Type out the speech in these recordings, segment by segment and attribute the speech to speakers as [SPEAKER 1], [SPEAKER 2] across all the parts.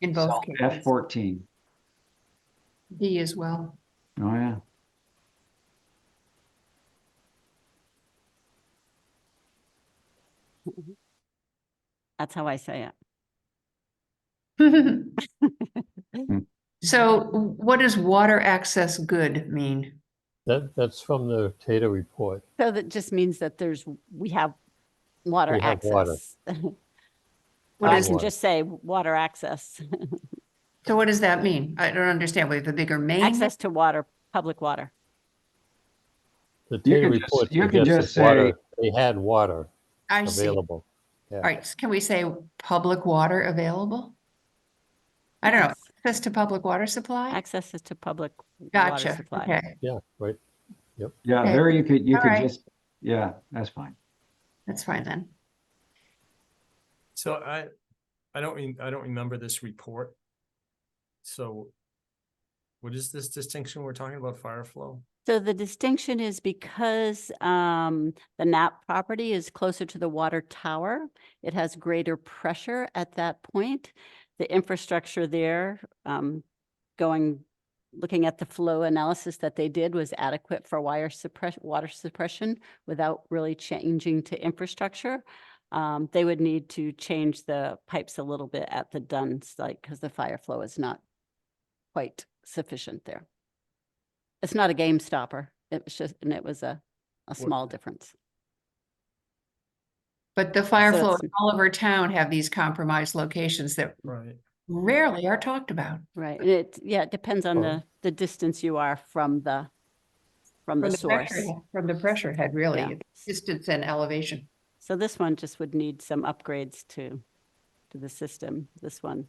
[SPEAKER 1] in both cases.
[SPEAKER 2] F fourteen.
[SPEAKER 1] D as well.
[SPEAKER 2] Oh, yeah.
[SPEAKER 3] That's how I say it.
[SPEAKER 1] So what does water access good mean?
[SPEAKER 4] That, that's from the Tata report.
[SPEAKER 3] So that just means that there's, we have water
[SPEAKER 4] We have water.
[SPEAKER 3] access.
[SPEAKER 1] What
[SPEAKER 3] I
[SPEAKER 1] is-
[SPEAKER 3] can
[SPEAKER 4] Water.
[SPEAKER 3] just say water access,
[SPEAKER 1] So what does that mean? I don't understand. We have a bigger main?
[SPEAKER 3] access to water, public water.
[SPEAKER 4] The
[SPEAKER 2] You
[SPEAKER 4] Tata
[SPEAKER 2] can just-
[SPEAKER 4] report
[SPEAKER 2] you can
[SPEAKER 4] suggests
[SPEAKER 2] just
[SPEAKER 4] that water, they had water
[SPEAKER 1] I see. All
[SPEAKER 4] available.
[SPEAKER 1] right, so can we say public water available? I don't know,
[SPEAKER 3] Yes.
[SPEAKER 1] access to public water supply?
[SPEAKER 3] Access is to public water
[SPEAKER 1] Gotcha,
[SPEAKER 3] supply.
[SPEAKER 1] okay,
[SPEAKER 4] Yeah, right.
[SPEAKER 2] Yeah,
[SPEAKER 1] Okay.
[SPEAKER 2] there you could, you
[SPEAKER 1] All
[SPEAKER 2] could
[SPEAKER 1] right.
[SPEAKER 2] just, yeah, that's fine.
[SPEAKER 1] that's fine then.
[SPEAKER 5] So I, I don't, re- I don't remember this report. So what is this distinction? We're talking about fire flow?
[SPEAKER 3] So the distinction is because um, the NAP property is closer to the water tower, it has greater pressure at that point. The infrastructure there, um, going, looking at the flow analysis that they did was adequate for wire suppress, water suppression without really changing to infrastructure. Um, They would need to change the pipes a little bit at the Dunn site because the fire flow is not quite sufficient there it's not a game stopper. It was just, and it was a, a small difference.
[SPEAKER 1] But the fire
[SPEAKER 3] So
[SPEAKER 1] flow
[SPEAKER 3] it's-
[SPEAKER 1] in all over town have these compromised locations that
[SPEAKER 3] Mm.
[SPEAKER 5] Right.
[SPEAKER 1] rarely are talked about.
[SPEAKER 3] Right. And it, yeah, it depends on the, the distance you are from the, from the
[SPEAKER 1] pressure
[SPEAKER 3] source.
[SPEAKER 1] head- From the pressure head,
[SPEAKER 3] Yeah.
[SPEAKER 1] really, distance and elevation.
[SPEAKER 3] So this one just would need some upgrades to, to the system, this one.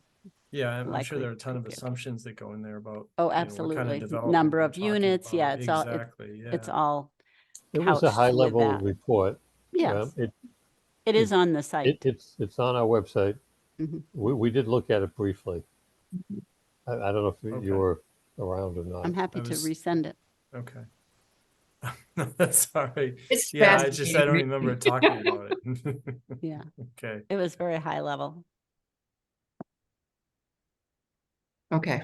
[SPEAKER 5] Yeah, I'm I'm sure
[SPEAKER 3] Likely
[SPEAKER 5] there are a ton of
[SPEAKER 3] to get-
[SPEAKER 5] assumptions that go in there about.
[SPEAKER 3] Oh,
[SPEAKER 5] you know, what kind of
[SPEAKER 3] absolutely.
[SPEAKER 5] development
[SPEAKER 3] Number
[SPEAKER 5] we're
[SPEAKER 3] of
[SPEAKER 5] talking
[SPEAKER 3] units, yeah,
[SPEAKER 5] about.
[SPEAKER 3] it's all- it-
[SPEAKER 5] Exactly, yeah.
[SPEAKER 3] It's all,
[SPEAKER 4] It was a
[SPEAKER 3] Couched
[SPEAKER 4] high
[SPEAKER 3] with
[SPEAKER 4] level
[SPEAKER 3] that.
[SPEAKER 4] report.
[SPEAKER 3] yes,
[SPEAKER 4] Um, It,
[SPEAKER 3] it is on the
[SPEAKER 4] it,
[SPEAKER 3] site.
[SPEAKER 4] it's, it's on our website.
[SPEAKER 3] Mhm.
[SPEAKER 4] We, we did look at it briefly. I, I don't know if you-
[SPEAKER 5] Okay.
[SPEAKER 4] you were around or not.
[SPEAKER 3] Mm-hmm. I'm happy
[SPEAKER 5] I
[SPEAKER 3] to
[SPEAKER 5] was-
[SPEAKER 3] resend it.
[SPEAKER 5] Okay. No, that's all right.
[SPEAKER 1] It's
[SPEAKER 5] Yeah, I just, I don't
[SPEAKER 1] fascinating.
[SPEAKER 5] remember talking about it.
[SPEAKER 3] Yeah,
[SPEAKER 5] Okay.
[SPEAKER 3] it was very high level.
[SPEAKER 1] Okay.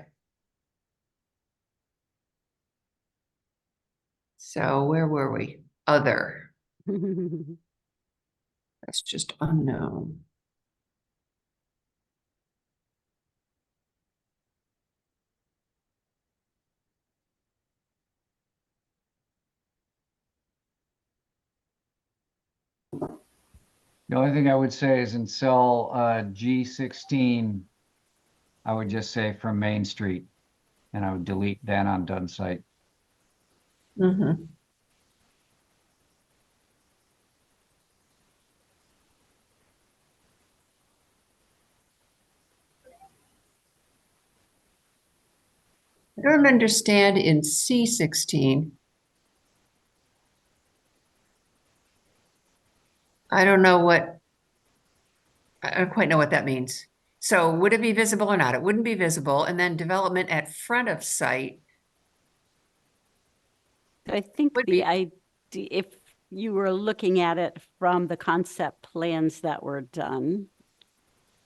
[SPEAKER 1] So where were we? Other, that's just unknown.
[SPEAKER 2] The only thing I would say is in cell, uh, G sixteen, I would just say from Main Street, and I would delete Dan on Dunn site.
[SPEAKER 1] Mhm. I don't understand in C sixteen. I don't know what, I I don't quite know what that means. So would it be visible or not? It wouldn't be visible, and then development at front of site
[SPEAKER 3] I think
[SPEAKER 1] Would be-
[SPEAKER 3] the idea, if you were looking at it from the concept plans that were done,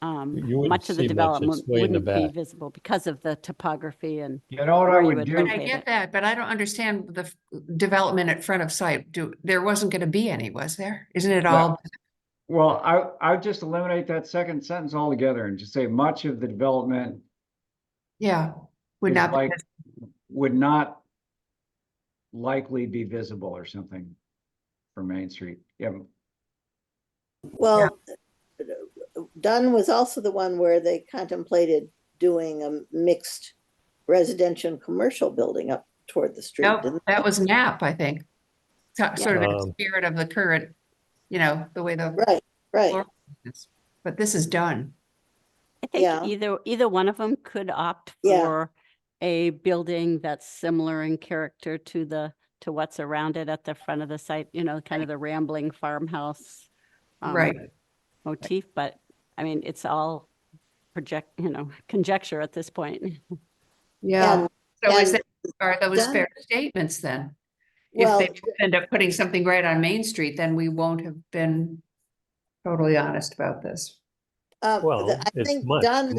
[SPEAKER 3] um,
[SPEAKER 4] You wouldn't
[SPEAKER 3] much of
[SPEAKER 4] see much.
[SPEAKER 3] the
[SPEAKER 4] It's
[SPEAKER 3] development
[SPEAKER 4] way in the
[SPEAKER 3] wouldn't be
[SPEAKER 4] back.
[SPEAKER 3] visible because of the topography and,
[SPEAKER 2] You know what I
[SPEAKER 3] Or you
[SPEAKER 2] would
[SPEAKER 3] would
[SPEAKER 2] do?
[SPEAKER 1] But I
[SPEAKER 3] Okay,
[SPEAKER 1] get
[SPEAKER 3] that-
[SPEAKER 1] that, but I don't understand the f- development at front of site. Do, there wasn't gonna be any, was there? Isn't it
[SPEAKER 2] Well,
[SPEAKER 1] all?
[SPEAKER 2] Well, I, I would just eliminate that second sentence altogether and just say much of the development
[SPEAKER 1] Yeah, would
[SPEAKER 2] is
[SPEAKER 1] not, be
[SPEAKER 2] like-
[SPEAKER 1] vis-
[SPEAKER 2] would not likely be visible or something for Main Street. Yeah,
[SPEAKER 6] Well, Dunn was also the one where they contemplated doing a mixed residential and commercial building up toward the street.
[SPEAKER 1] no,
[SPEAKER 6] didn't they?
[SPEAKER 1] that was NAP, I think. So- Sort of in the
[SPEAKER 4] Um,
[SPEAKER 1] spirit of the current, you know, the way the,
[SPEAKER 6] Right, right.
[SPEAKER 1] but this is done.
[SPEAKER 3] I think
[SPEAKER 6] Yeah.
[SPEAKER 3] either, either one of them could opt
[SPEAKER 6] Yeah.
[SPEAKER 3] for a building that's similar in character to the, to what's around it at the front of the site, you know, kind of the rambling farmhouse. um,
[SPEAKER 1] Right,
[SPEAKER 3] Motif, but I mean, it's all project, you know, conjecture at this point.
[SPEAKER 1] yeah.
[SPEAKER 6] And-
[SPEAKER 1] So is
[SPEAKER 6] and-
[SPEAKER 1] that, are those
[SPEAKER 6] Done.
[SPEAKER 1] fair statements then? If
[SPEAKER 6] Well,
[SPEAKER 1] they end up putting something right on Main Street, then we won't have been totally honest about this.
[SPEAKER 6] um,
[SPEAKER 4] Well,
[SPEAKER 6] the- I
[SPEAKER 4] it's
[SPEAKER 6] think
[SPEAKER 4] much.
[SPEAKER 6] Dunn